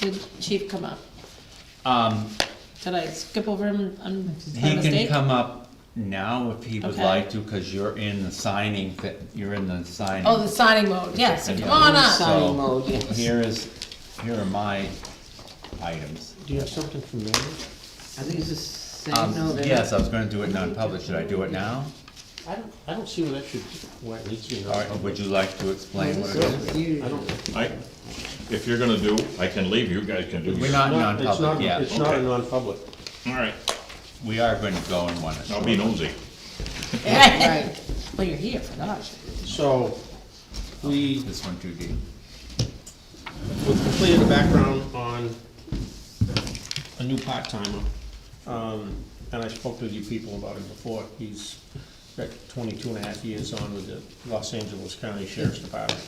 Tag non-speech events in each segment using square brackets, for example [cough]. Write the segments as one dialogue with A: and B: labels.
A: Did Chief come up?
B: Um,
A: Did I skip over him on by
B: he can
A: mistake?
B: come up now if he would
A: Okay.
B: like to, cause you're in the signing, fa- you're in the signing.
A: Oh, the signing mode, yes, so
B: And
A: come on
B: so
A: up.
C: Signing mode, yes.
B: Here is, here are my items.
D: Do you have something from Mary?
C: Are these the same?
B: Um,
C: No, they're
B: yes,
C: not.
B: I was gonna do it non-public, should I do it now?
D: I don't, I don't see where that should, where it needs to be.
B: Or would you like to explain what it
C: This
B: is?
C: is you.
D: I don't,
E: I, if you're gonna do, I can leave, you guys can do.
B: We're
E: yours.
B: not
D: no, it's
B: non-public
D: not,
B: yet,
D: it's not a
E: Okay.
D: non-public.
E: All right,
B: we are gonna go in one.
E: I'll be nosy.
A: [laughs]
C: Right.
A: Well, you're here for that.
D: So, we,
B: This one too deep.
D: we've completed the background on a new part-timer. Um, and I spoke to you people about him before. He's got 22 and a half years on with the Los Angeles County Sheriff's Department.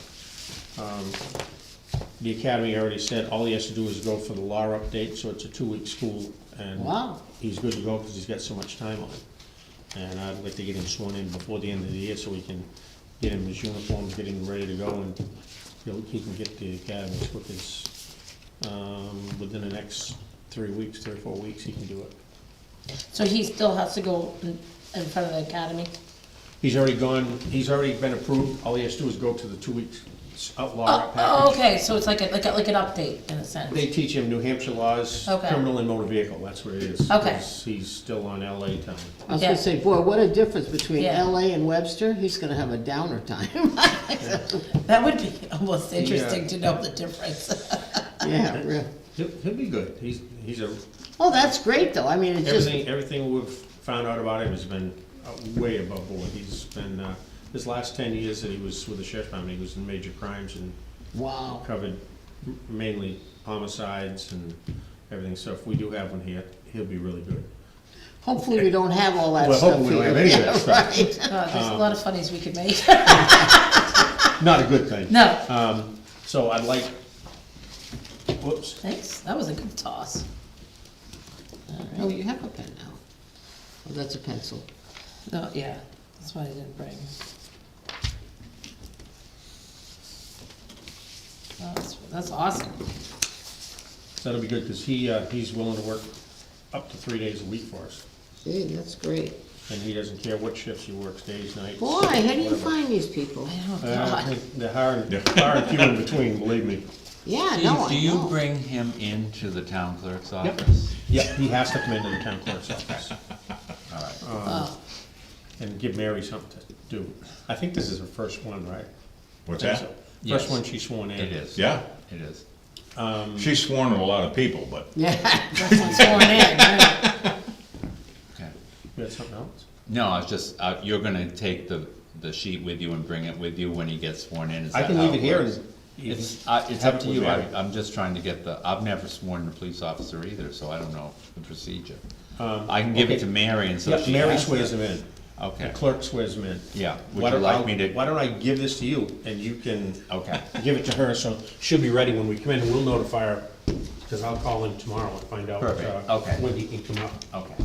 D: Um, The academy already said all he has to do is go for the law update, so it's a two-week school and.
A: Wow.
D: He's good to go because he's got so much time on it. And I'd like to get him sworn in before the end of the year so we can get him his uniforms, get him ready to go and he'll, he can get the academy as quick as, um, within the next three weeks, three or four weeks, he can do it.
A: So he still has to go in, in front of the academy?
D: He's already gone, he's already been approved, all he has to do is go to the two weeks outlaw
A: Oh, oh,
D: package.
A: okay, so it's like a, like a, like an update in a sense.
D: They teach him New Hampshire laws,
A: Okay.
D: criminal and motor vehicle, that's what it is.
A: Okay.
D: 'cause He's still on LA time.
C: I was
A: Yeah.
C: gonna say, boy, what a difference between
A: Yeah.
C: LA and Webster, he's gonna have a downer time. [laughs]
A: That would be [laughs] almost interesting
D: Yeah.
A: to know the difference. [laughs]
C: Yeah, real.
D: He'll, he'll be good, he's, he's a
C: Oh, that's great, though, I mean, it's just,
D: Everything, everything we've found out about him has been uh, way above board. He's been, uh, his last ten years that he was with the sheriff's department, he was in major crimes and
C: wow,
D: covered m- mainly homicides and everything, so if we do have one here, he'll be really good.
C: hopefully we don't have all that
D: Well,
C: stuff
D: hopefully we don't
C: here.
D: have any
C: [laughs]
D: of
C: Yeah,
D: that stuff.
C: right.
A: Uh, there's a lot of funnies we could make. [laughs]
D: Not a good thing.
A: No,
D: Um, so I'd like, whoops,
A: thanks, that was a good toss.
C: Oh, you have a pen now. Oh, that's a pencil.
A: No, yeah, that's why I didn't bring. Oh, That's, that's awesome.
D: that'll be good, cause he, uh, he's willing to work up to three days a week for us.
C: Gee, that's great.
D: And he doesn't care what shifts he works, days, nights.
C: Boy, how do you
D: whatever.
C: find these people?
A: I know,
D: Uh,
A: Oh, God.
D: They're hard, hard and few in between, believe me.
C: Yeah,
B: Steve,
C: no, I
B: do you
C: know.
B: bring him into the town clerk's office?
D: Yeah, he has to come into the town
B: [laughs]
D: clerk's office Um,
A: Oh,
D: and give Mary something to do. I think this is her first one, right?
E: What's
D: Think so.
E: that?
B: Yes.
D: First one she's sworn in.
B: It is.
E: Yeah,
B: It is.
E: she's sworn to a lot of people, but
C: [laughs] Yeah,
A: that's what's going in, right? [laughs]
B: Okay.
D: You had something else?
B: No, I was just, uh, you're gonna take the, the sheet with you and bring it with you when he gets sworn in, is
D: I
B: that
D: can
B: how
D: leave it here
B: works?
D: and. you
B: It's,
D: can
B: uh, it's
D: have
B: up
D: it
B: to
D: with
B: you, I,
D: Mary.
B: I'm just trying to get the, I've never sworn a police officer either, so I don't know the procedure. I can give it
D: Um, okay.
B: to Mary and so
D: Yep,
B: she
D: Mary
B: has
D: swears
B: it.
D: him in. The
B: Okay,
D: clerk swears him in.
B: yeah,
D: Why
B: would you
D: don't- I'll-
B: like me to,
D: Why don't I give this to you and you can
B: okay,
D: give it to her, so she'll be ready when we come in, and we'll notify her, because I'll call in tomorrow and find out.
B: Perfect,
D: uh,
B: okay.
D: When he can come up.
B: okay.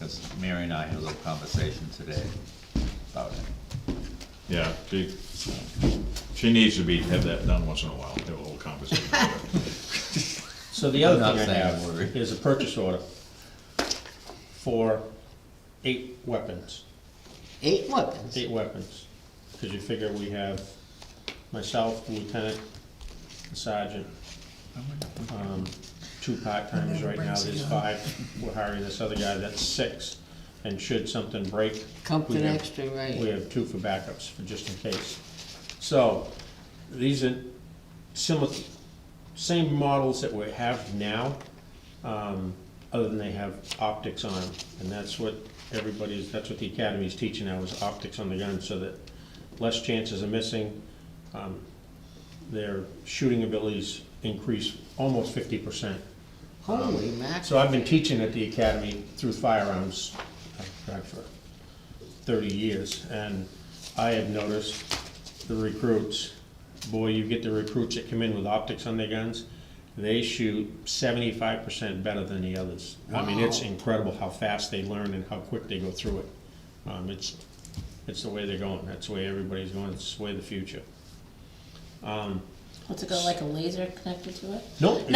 B: Cause Mary and I had a little conversation today about it.
E: yeah, she, she needs to be, have that done once in a while, have a little conversation.
D: So the other
B: I'm not
D: thing I
B: saying a word.
D: have is a purchase order for eight weapons,
C: eight weapons.
D: eight weapons. Because you figure we have myself, lieutenant, sergeant, um, two part-timers right now, there's five. We're hiring this other guy, that's six. And should something break. we
C: Compton
D: have-
C: Extra, right.
D: We have two for backups, for just in case. So, these are similar, same models that we have now, um, other than they have optics on them. And that's what everybody's, that's what the academy's teaching now, is optics on the gun, so that less chances of missing. Um, Their shooting abilities increase almost fifty percent.
C: Holy mackerel.
D: um, So I've been teaching at the academy through firearms, I've tried for thirty years, and I have noticed the recruits, boy, you get the recruits that come in with optics on their guns, they shoot seventy-five percent better than the others. I mean, it's
C: Wow.
D: incredible how fast they learn and how quick they go through it. Um, it's, it's the way they're going, that's the way everybody's going, it's the way of the future.
A: What's it got, like a laser connected to it?
D: Nope,